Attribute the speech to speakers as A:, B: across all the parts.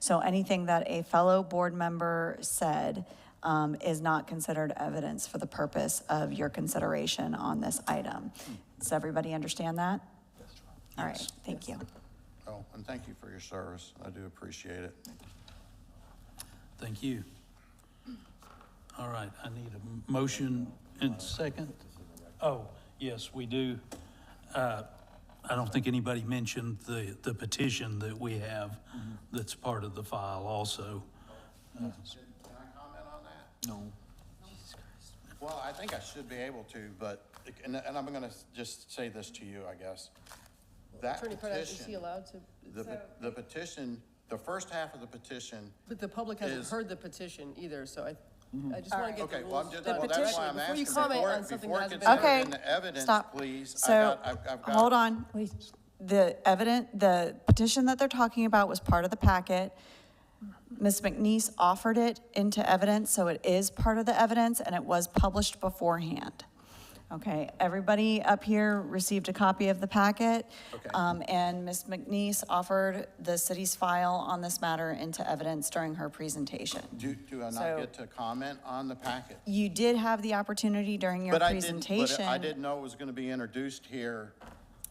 A: So anything that a fellow board member said um, is not considered evidence for the purpose of your consideration on this item. Does everybody understand that? All right, thank you.
B: Oh, and thank you for your service. I do appreciate it.
C: Thank you. All right, I need a m- motion and second. Oh, yes, we do. Uh, I don't think anybody mentioned the, the petition that we have that's part of the file also.
B: Can I comment on that? No. Well, I think I should be able to, but, and, and I'm gonna just say this to you, I guess. That
D: Attorney Prado, is he
B: petition,
D: allowed to?
B: the, pe- the petition, the first half of the petition,
D: But the public hasn't
B: Is-
D: heard the petition either, so I, I just want to get the
B: okay, well, I'm
D: rules.
B: just,
D: the
B: well, that's
D: petition.
B: why I'm
D: Before you
B: asking,
D: comment
B: before,
D: on
B: it-
D: something
B: before
D: that
B: it gets
D: hasn't been-
A: Okay,
B: put in the evidence,
A: stop.
B: please.
A: So,
B: I got- I've- I've got-
A: hold on. The evident, the petition that they're talking about was part of the packet. Ms. McNeese offered it into evidence, so it is part of the evidence, and it was published beforehand. Okay, everybody up here received a copy of the packet.
B: Okay.
A: um, And Ms. McNeese offered the city's file on this matter into evidence during her presentation.
B: Do, do I
A: So-
B: not get to comment on the packet?
A: You did have the opportunity during your
B: But I didn't, but
A: presentation.
B: I didn't know it was gonna be introduced here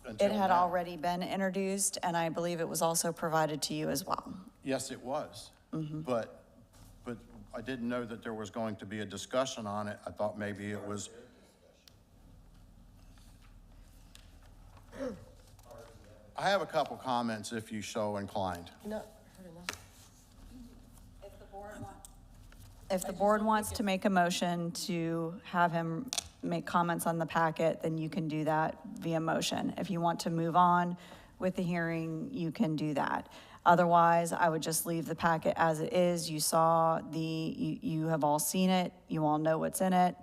B: until
A: It had
B: now.
A: already been introduced, and I believe it was also provided to you as well.
B: Yes, it was. But, but I didn't know that there was going to be a discussion on it. I thought maybe it was. I have a couple comments if you so inclined.
D: You're not heard enough.
A: If the board wants to make a motion to have him make comments on the packet, then you can do that via motion. If you want to move on with the hearing, you can do that. Otherwise, I would just leave the packet as it is. You saw the, you, you have all seen it, you all know what's in it,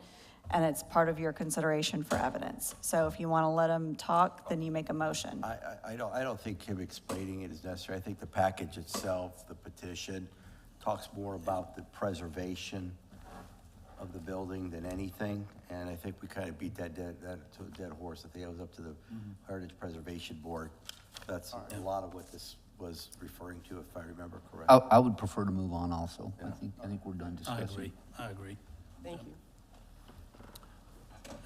A: and it's part of your consideration for evidence. So if you want to let him talk, then you make a motion.
E: I, I, I don't, I don't think him explaining it is necessary. I think the package itself, the petition, talks more about the preservation of the building than anything, and I think we kind of beat that dead, that to a dead horse. I think it was up to the Heritage Preservation Board. That's a lot of what this was referring to, if I remember
F: I,
E: correctly.
F: I would prefer to move on also. I think, I think we're done
C: I
F: discussing.
C: agree, I agree.
D: Thank you.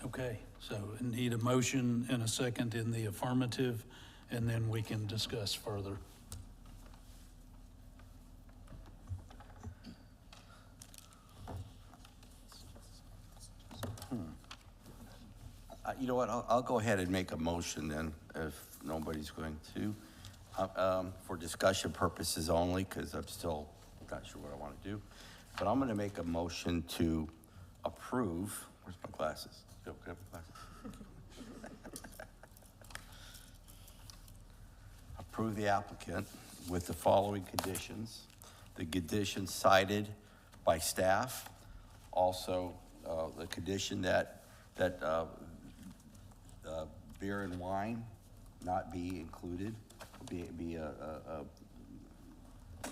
C: Okay, so need a motion and a second in the affirmative, and then we can discuss further.
E: Uh, You know what, I'll, I'll go ahead and make a motion then, if nobody's going to, uh, um, for discussion purposes only, because I'm still not sure what I want to do. But I'm going to make a motion to approve, where's my glasses? Yo, can I have my glasses? Approve the applicant with the following conditions. The conditions cited by staff, also uh, the condition that, that uh, uh, beer and wine not be included, be, be uh, a, a, a-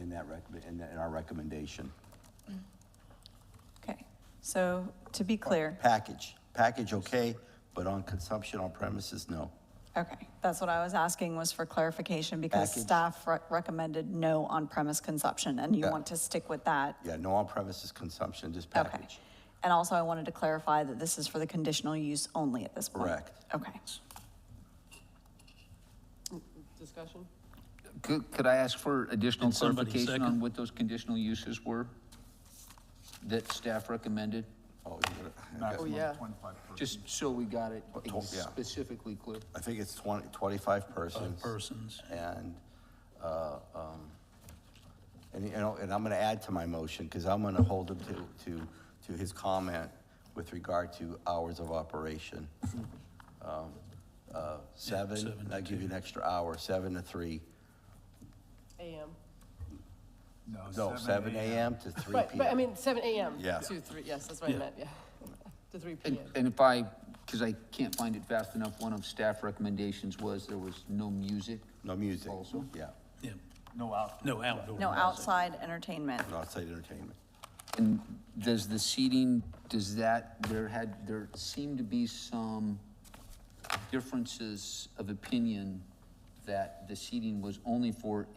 E: in that rec, in that, in our recommendation.
A: Okay, so to be clear.
E: Package, package okay, but on consumption on premises, no.
A: Okay, that's what I was asking was for clarification because
E: Package.
A: staff re- recommended no on-premise consumption and you
E: Yeah.
A: want to stick with that?
E: Yeah, no on premises consumption, just
A: Okay.
E: package.
A: And also I wanted to clarify that this is for the conditional use only at this point?
E: Correct.
A: Okay.
D: Discussion?
F: Could, could I ask for additional
C: Can somebody
F: clarification
C: second?
F: on what those conditional uses were that staff recommended?
E: Oh, you got it.
D: Oh, yeah.
F: Just so we got it
E: Oh, to- yeah.
F: specifically clear.
E: I think it's twenty, twenty-five persons.
C: Persons.
E: And, uh, um, and, you know, and I'm gonna add to my motion, because I'm gonna hold him to, to, to his comment with regard to hours of operation. Um, uh, Seven,
C: seven to
E: I give you an extra hour, seven to three,
D: AM.
C: Oh,
E: no, seven AM to three
D: Right,
E: PM.
D: but I mean, seven AM
E: Yeah.
D: to three, yes, that's what I
C: Yeah.
D: meant, yeah. To three
F: And,
D: PM.
F: and if I, because I can't find it fast enough, one of staff recommendations was there was no music.
E: No music,
F: Also.
E: yeah,
C: Yeah. No outdoor. No outdoor.
A: No outside entertainment.
E: and outside entertainment.
F: And does the seating, does that, there had, there seemed to be some differences of opinion that the seating was only for